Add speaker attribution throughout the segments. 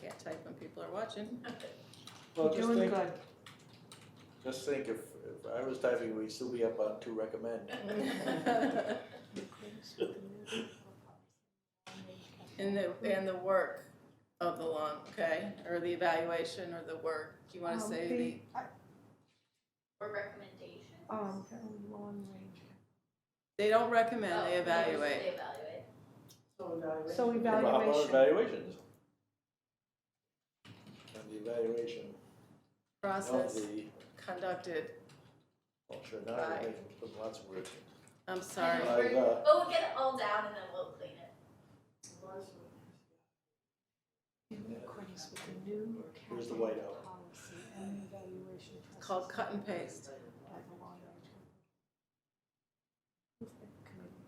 Speaker 1: can't type when people are watching.
Speaker 2: Well, just
Speaker 3: Doing
Speaker 2: think,
Speaker 3: good.
Speaker 2: just think if, if I was typing, we'd still be up on two recommend.
Speaker 1: And the, and the work of the long, okay, or the evaluation or the work, do you wanna
Speaker 4: Oh,
Speaker 3: Um,
Speaker 1: say the?
Speaker 3: the- I-
Speaker 4: Or recommendations?
Speaker 3: Um, long range.
Speaker 1: They don't recommend,
Speaker 4: Oh,
Speaker 1: they
Speaker 4: They
Speaker 1: evaluate.
Speaker 4: evaluate.
Speaker 3: So
Speaker 2: How about
Speaker 3: evaluation,
Speaker 2: Evaluations. And the evaluation of
Speaker 1: Process
Speaker 2: the,
Speaker 1: conducted,
Speaker 2: well, sure, not
Speaker 1: Right.
Speaker 2: evaluation, put lots of Uh, words. in.
Speaker 1: I'm sorry.
Speaker 4: Right.
Speaker 2: By the-
Speaker 4: But we'll get it all down and then we'll clean it.
Speaker 3: in accordance with the new
Speaker 2: Here's the
Speaker 3: capital
Speaker 2: whiteout.
Speaker 3: policy and evaluation
Speaker 1: It's called cut and paste.
Speaker 3: process by the long range. Committee.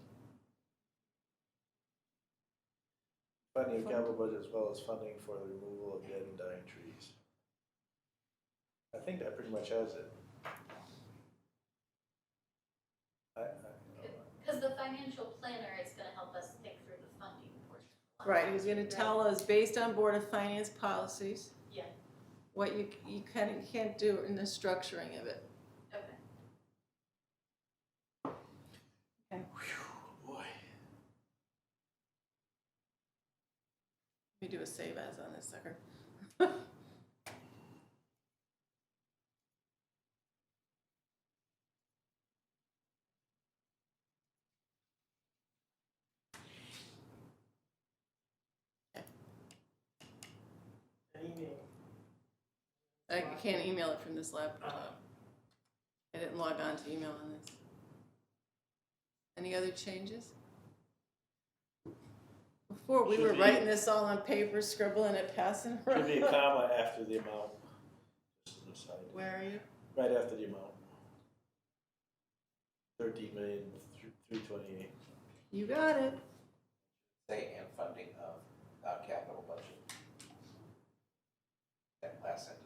Speaker 2: Funding of capital budget as well as funding for the removal of dead and dying trees. I think that pretty much has it. I, I, you know,
Speaker 4: Because the financial planner is gonna help us think through the funding portion.
Speaker 1: Right, he's gonna tell us, based on Board of Finance policies.
Speaker 4: Yeah.
Speaker 1: What you, you can, and can't do in the structuring of it.
Speaker 4: Okay.
Speaker 2: boy,
Speaker 1: We do a save as on this sucker. I can't email it from this laptop. I didn't log on to email on this. Any other changes? Before, we
Speaker 2: Should
Speaker 1: were
Speaker 2: be-
Speaker 1: writing this all on paper, scribbling it, passing it
Speaker 2: should be a
Speaker 1: around.
Speaker 2: comma after the amount. Just an aside.
Speaker 1: Where are you?
Speaker 2: Right after the amount. Thirteen million, three twenty-eight.
Speaker 1: You got it.
Speaker 5: say and funding of, uh, capital budget. That last sentence.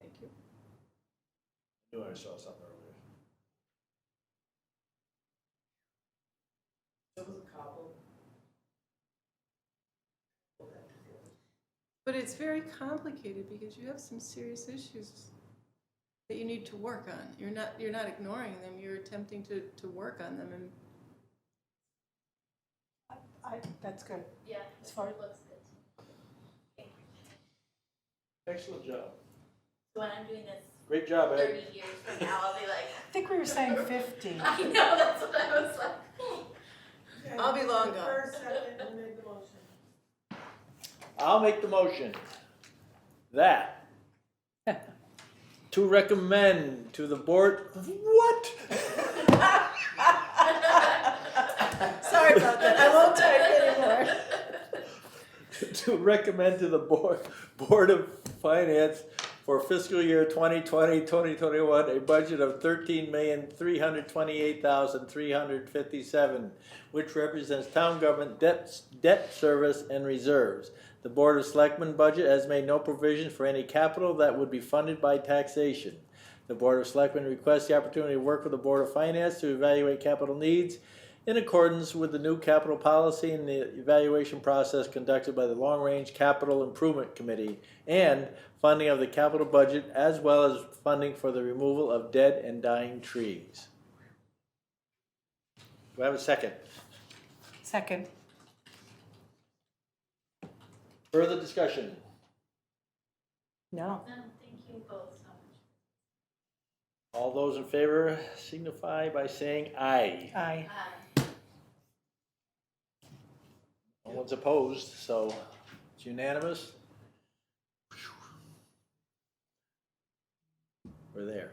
Speaker 1: Thank you.
Speaker 2: I knew I saw something earlier.
Speaker 1: But it's very complicated because you have some serious issues that you need to work on. You're not you're not ignoring them. You're attempting to, to work on them. And
Speaker 3: I, that's good.
Speaker 4: Yeah.
Speaker 3: As far-
Speaker 4: Looks good.
Speaker 2: Excellent job.
Speaker 4: So when I'm doing this
Speaker 2: Great job, Ed.
Speaker 4: thirty years from now, I'll be like,
Speaker 3: I think we were saying fifty.
Speaker 4: I know, that's what I was like.
Speaker 1: I'll be long gone.
Speaker 6: First, second, and make the motion.
Speaker 2: I'll make the motion that to recommend to the board, what?
Speaker 1: sorry about that. I won't type anymore.
Speaker 2: To recommend to the board, Board of Finance for fiscal year 2020, 2021, a budget of thirteen million, three hundred twenty-eight thousand, three hundred fifty-seven, which represents town government debt, debt service and reserves. The Board of Selectmen budget has made no provision for any capital that would be funded by taxation. The Board of Selectmen requests the opportunity to work with the Board of Finance to evaluate capital needs in accordance with the new capital policy and the evaluation process conducted by the Long Range Capital Improvement Committee and funding of the capital budget as well as funding for the removal of dead and dying trees. Do I have a second?
Speaker 3: Second.
Speaker 2: Further discussion?
Speaker 3: No.
Speaker 4: No, thank you both so much.
Speaker 2: All those in favor signify by saying aye.
Speaker 3: Aye.
Speaker 4: Um,
Speaker 2: No one's opposed, so it's unanimous. We're there.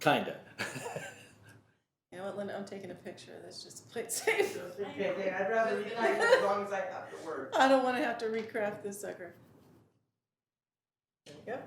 Speaker 2: Kinda.
Speaker 1: You know what, Linda? I'm taking a picture of this just to play it safe.
Speaker 6: Okay, I'd rather be like, as long as I have the word.
Speaker 1: I don't want to have to recraft this sucker. There we go.